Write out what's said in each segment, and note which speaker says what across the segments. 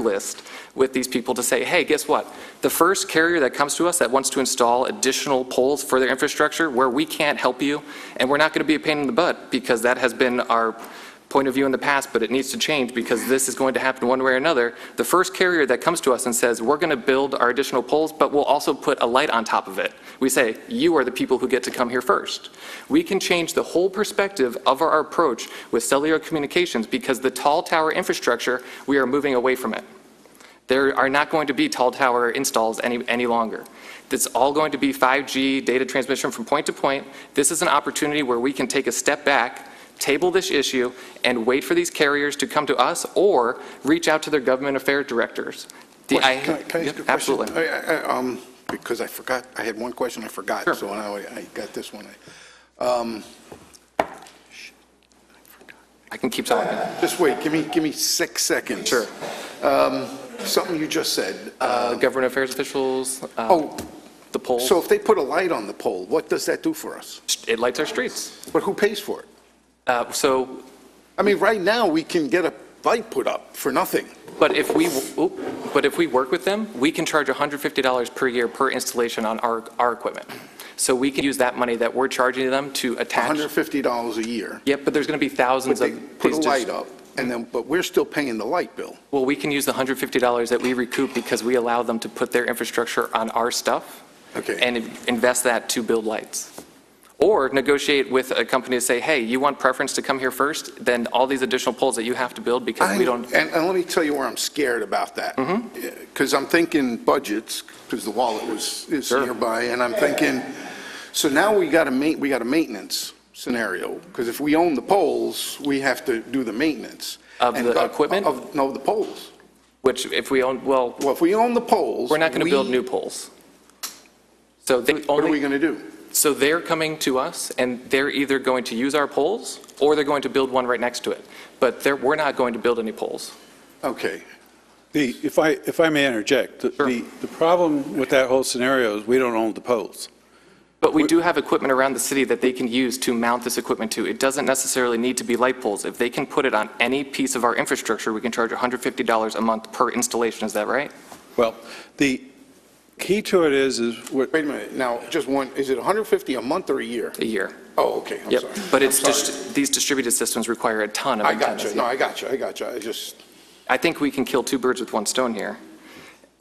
Speaker 1: list with these people to say, hey, guess what? The first carrier that comes to us that wants to install additional poles for their infrastructure where we can't help you, and we're not going to be a pain in the butt because that has been our point of view in the past, but it needs to change because this is going to happen one way or another. The first carrier that comes to us and says, we're going to build our additional poles, but we'll also put a light on top of it. We say, you are the people who get to come here first. We can change the whole perspective of our approach with cellular communications because the tall tower infrastructure, we are moving away from it. There are not going to be tall tower installs any, any longer. It's all going to be 5G data transmission from point to point. This is an opportunity where we can take a step back, table this issue, and wait for these carriers to come to us or reach out to their government affairs directors. The- I-
Speaker 2: Question. Can I- can
Speaker 1: Yep,
Speaker 2: I ask you a question?
Speaker 1: Absolutely.
Speaker 2: I- I- I, um, Because I forgot, I had one question I forgot.
Speaker 1: Sure.
Speaker 2: So now I I got this one. Um,
Speaker 1: I can keep talking.
Speaker 2: Just wait, give me, give me six seconds.
Speaker 1: Sure.
Speaker 2: Um, Something you just said.
Speaker 1: Uh, Government affairs officials, uh,
Speaker 2: Oh,
Speaker 1: the polls,
Speaker 2: so if they put a light on the pole, what does that do for us?
Speaker 1: it lights our streets.
Speaker 2: But who pays for it?
Speaker 1: Uh, So,
Speaker 2: I mean, right now, we can get a light put up for nothing.
Speaker 1: but if we, oop, but if we work with them, we can charge $150 per year per installation on our, our equipment. So we can use that money that we're charging them to attach.
Speaker 2: $150 a year.
Speaker 1: Yep, but there's going to be
Speaker 2: But
Speaker 1: thousands
Speaker 2: they
Speaker 1: of.
Speaker 2: put a
Speaker 1: these dis-
Speaker 2: light up, and then, but we're still paying the light bill.
Speaker 1: Well, we can use the $150 that we recoup because we allow them to put their infrastructure on our stuff
Speaker 2: Okay.
Speaker 1: and in- invest that to build lights. Or negotiate with a company to say, hey, you want preference to come here first, then all these additional poles that you have to build because
Speaker 2: I-
Speaker 1: we don't. Mm-hmm.
Speaker 2: And, and let me tell you where I'm scared about that. Because I'm thinking budgets, because the wallet was, is
Speaker 1: Sure.
Speaker 2: nearby, and I'm thinking, so now we got a ma, we got a maintenance scenario, because if we own the poles, we have to do the maintenance.
Speaker 1: Of
Speaker 2: And
Speaker 1: the
Speaker 2: go-
Speaker 1: equipment?
Speaker 2: Of, no, the poles.
Speaker 1: Which if we own, well,
Speaker 2: Well, if we own the poles.
Speaker 1: we're not going to
Speaker 2: we-
Speaker 1: build new poles. So they
Speaker 2: What are we
Speaker 1: only,
Speaker 2: going to do?
Speaker 1: so they're coming to us and they're either going to use our poles or they're going to build one right next to it. But they're, we're not going to build any poles.
Speaker 2: Okay.
Speaker 3: The, if I, if I may interject, the,
Speaker 1: Sure.
Speaker 3: the the problem with that whole scenario is we don't own the poles.
Speaker 1: But we do have equipment around the city that they can use to mount this equipment to. It doesn't necessarily need to be light poles. If they can put it on any piece of our infrastructure, we can charge $150 a month per installation, is that right?
Speaker 3: Well, the key to it is, is what,
Speaker 2: Wait a minute. Now, just one, is it 150 a month or a year?
Speaker 1: A year.
Speaker 2: Oh, okay, I'm
Speaker 1: Yep.
Speaker 2: sorry.
Speaker 1: But it's
Speaker 2: I'm sorry.
Speaker 1: just, these distributed systems require a ton of
Speaker 2: I got you.
Speaker 1: antennas.
Speaker 2: No, I got you. I got you. I just,
Speaker 1: I think we can kill two birds with one stone here.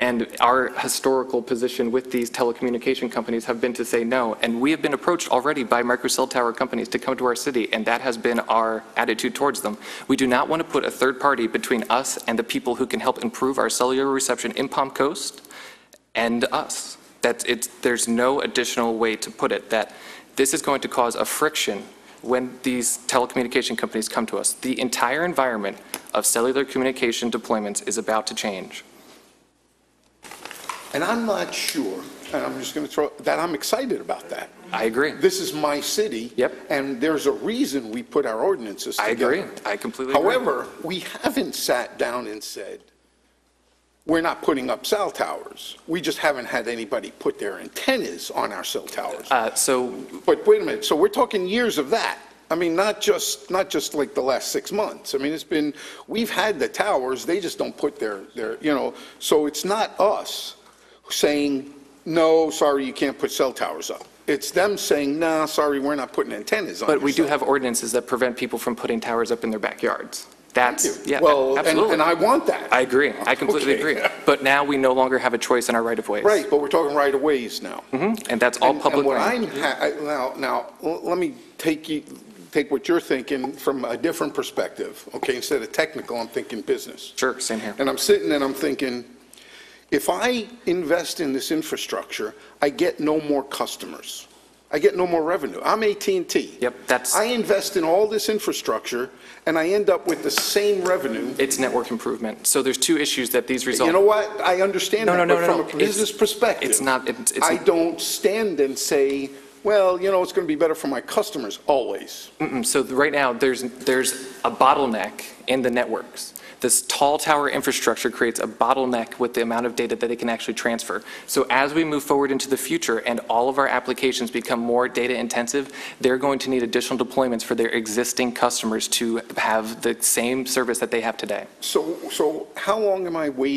Speaker 1: And our historical position with these telecommunication companies have been to say no. And we have been approached already by microcell tower companies to come to our city, and that has been our attitude towards them. We do not want to put a third party between us and the people who can help improve our cellular reception in Palm Coast and us. That's, it's, there's no additional way to put it, that this is going to cause a friction when these telecommunication companies come to us. The entire environment of cellular communication deployments is about to change.
Speaker 2: and I'm not sure, and I'm just going to throw, that I'm excited about that.
Speaker 1: I agree.
Speaker 2: This is my city.
Speaker 1: Yep.
Speaker 2: And there's a reason we put our ordinances
Speaker 1: I
Speaker 2: together.
Speaker 1: agree. I completely agree.
Speaker 2: However, we haven't sat down and said, we're not putting up cell towers. We just haven't had anybody put their antennas on our cell towers.
Speaker 1: Uh, So
Speaker 2: But wait a minute, so we're talking years of that. I mean, not just, not just like the last six months. I mean, it's been, we've had the towers, they just don't put their, their, you know, so it's not us saying, no, sorry, you can't put cell towers up. It's them saying, nah, sorry, we're not putting antennas on
Speaker 1: But we
Speaker 2: your
Speaker 1: do
Speaker 2: cell
Speaker 1: have ordinances that prevent people from putting towers up in their backyards. That's,
Speaker 2: Thank you.
Speaker 1: yeah,
Speaker 2: Well, and-
Speaker 1: absolutely.
Speaker 2: And I want that.
Speaker 1: I agree. I completely
Speaker 2: Okay.
Speaker 1: agree. But now we no longer have a choice in our right-of-ways.
Speaker 2: Right, but we're talking right-of-ways now.
Speaker 1: Mhm, And that's all
Speaker 2: And-
Speaker 1: public
Speaker 2: And what
Speaker 1: land.
Speaker 2: I'm, ha- I- now, now, l- let me take you, take what you're thinking from a different perspective, okay? Instead of technical, I'm thinking business.
Speaker 1: Sure, same here.
Speaker 2: And I'm sitting and I'm thinking, if I invest in this infrastructure, I get no more customers. I get no more revenue. I'm at and T.
Speaker 1: Yep, that's,
Speaker 2: I invest in all this infrastructure, and I end up with the same revenue
Speaker 1: it's network improvement. So there's two issues that these result.
Speaker 2: you know what? I understand
Speaker 1: No,
Speaker 2: that,
Speaker 1: no, no,
Speaker 2: but
Speaker 1: no,
Speaker 2: from
Speaker 1: no.
Speaker 2: a
Speaker 1: It's-
Speaker 2: business perspective.
Speaker 1: it's not- it's- it's-
Speaker 2: I don't stand and say, well, you know, it's going to be better for my customers, always.
Speaker 1: Mm-mm. So th- right now, there's, there's a bottleneck in the networks. This tall tower infrastructure creates a bottleneck with the amount of data that it can actually transfer. So as we move forward into the future and all of our applications become more data-intensive, they're going to need additional deployments for their existing customers to have the same service that they have today.
Speaker 2: So, so how long am I waiting